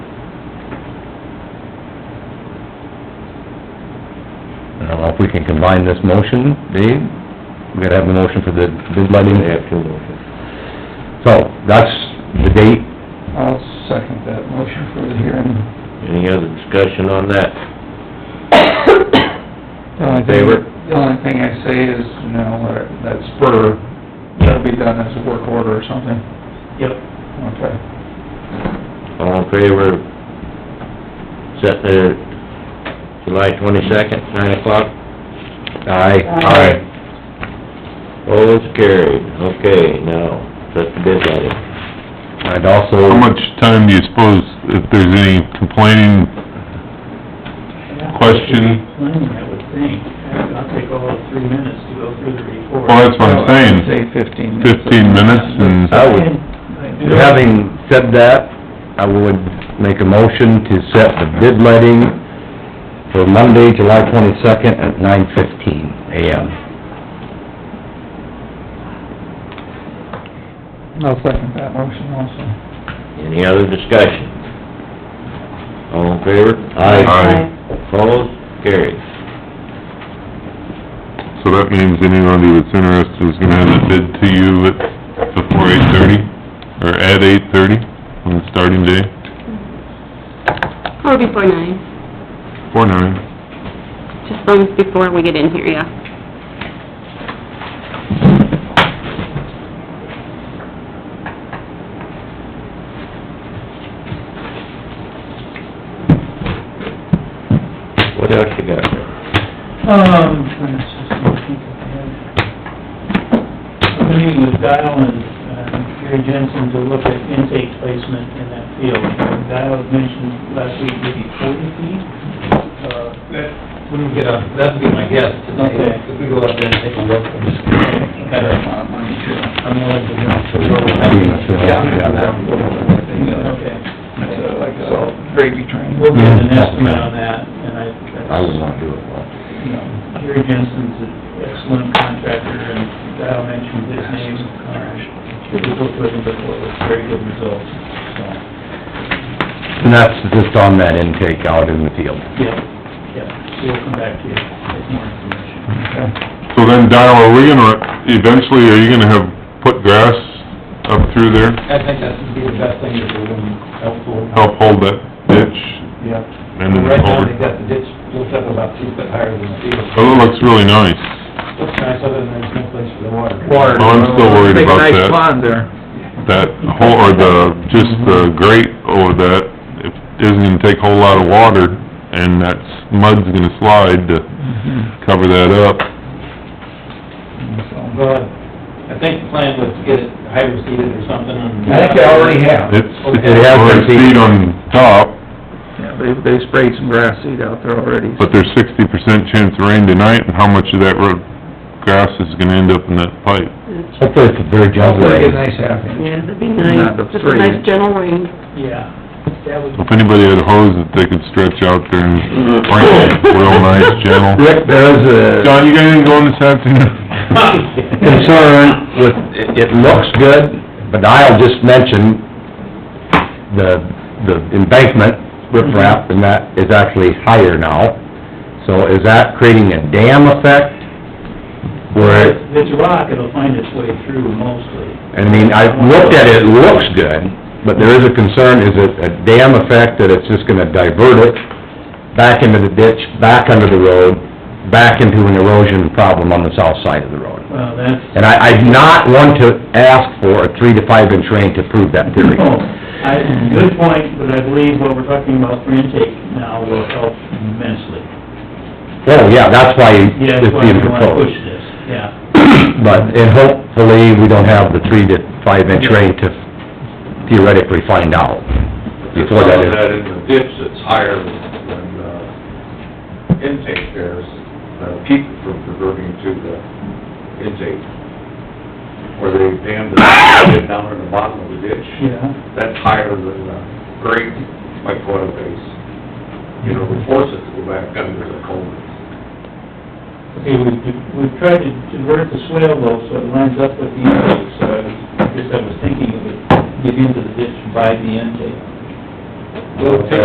Uh, if we can combine this motion, Dave, we gotta have the motion for the bid letting. They have two motions. So, that's the date, I'll second that motion for the hearing. Any other discussion on that? The only thing- Favor? The only thing I say is, you know, that- that spur should be done as a work order or something. Yep. Okay. All in favor of setting it July twenty-second, nine o'clock? Aye. Aye. Opposed, carried. Okay, now, set the bid letting. I'd also... How much time do you suppose, if there's any complaining, question? Planning, I would think. I'll take all of three minutes to go through the report. Well, that's what I'm saying, Say fifteen minutes. fifteen minutes and... I would- I do. Having said that, I would make a motion to set the bid letting for Monday, July twenty-second at nine fifteen AM. I'll second that motion also. Any other discussion? All in favor? Aye. Opposed, carried. So that means anybody that's interested is gonna have it bid to you at, before eight-thirty, or at eight-thirty, on the starting day, Or before nine, before nine. just long as before we get in here, yeah. What else you got there? Um, let's just think of that. I'm meeting with Dial and uh, Gary Jensen to look at intake placement in that field. Dial had mentioned last week maybe forty feet. Uh, Wouldn't get a, that'd be my guess today, Okay. if we go out there and take a look. and just- I'm willing to jump to where we have. Yeah. Yeah. Okay. It's uh, like a salt gravy train. We'll get an estimate on that, and I... I would not do it, well. you know, Jerry Jensen's an excellent contractor, and I'll mention his name, uh, we worked with him before, with very good results, so, And that's just on that intake out in the field. yeah, yeah, we'll come back to you with more information. So then, Dial, are we gonna, eventually, are you gonna have put grass up through there, I think that would be the best thing to do and helpful. help hold that ditch Yeah. and then Right now, over? they've got the ditch built up about two foot higher than the field. Oh, it looks really nice. Looks nice, other than there's no place for the water. Water. Oh, I'm still worried Big about nice that. pond there. that whole, or the, just the grate over that, it isn't gonna take a whole lot of water, and that mud's gonna slide to cover that up. But I think the plan was to get it hydro seeded or something and. I think they already have. It's, It it's has four been feet seeded. on top, Yeah, they, they sprayed some grass seed out there already. but there's sixty percent chance of rain tonight, and how much of that road grass is gonna end up in that pipe? Hopefully it's a very gentle Hopefully rain. a nice half inch. Yeah, that'd be Not nice, the just three. a nice gentle rain. Yeah, that would, If anybody had a hose that they could stretch out there and sprinkle, real nice, gentle. Rick, there is a Mm-hmm. John, you got anything going this afternoon? concern with, it- it looks good, but I'll just mention the, the embankment, Mm-hmm. riprap, and that is actually higher now. So is that creating a dam effect? Where it if it's a rock, it'll find its way through mostly. I mean, I looked at it, it looks good, but there is a concern, is it a dam effect that it's just gonna divert it back into the ditch, back under the road, back into an erosion problem on the south side of the road? Well, that's, And I, I do not want to ask for a three to five inch rain to prove that theory. oh, I, good point, but I believe what we're talking about for intake now will help immensely. Oh, yeah, that's why Yeah, it's that's why we being wanna push proposed. this, yeah. But, and hopefully, we don't have the three to five inch rain to theoretically find out before that is. in the ditch that's higher than, than, uh, intake there's a peak from converting to the intake. Where they dammed it down in the bottom of the ditch, Yeah. that's higher than the grade micro base. You know, we force it to go back under the culvert. Okay, we've, we've tried to divert the swale though, so it lines up with the intake, so I was, I guess I was thinking it would get into the ditch by the intake. Well, it takes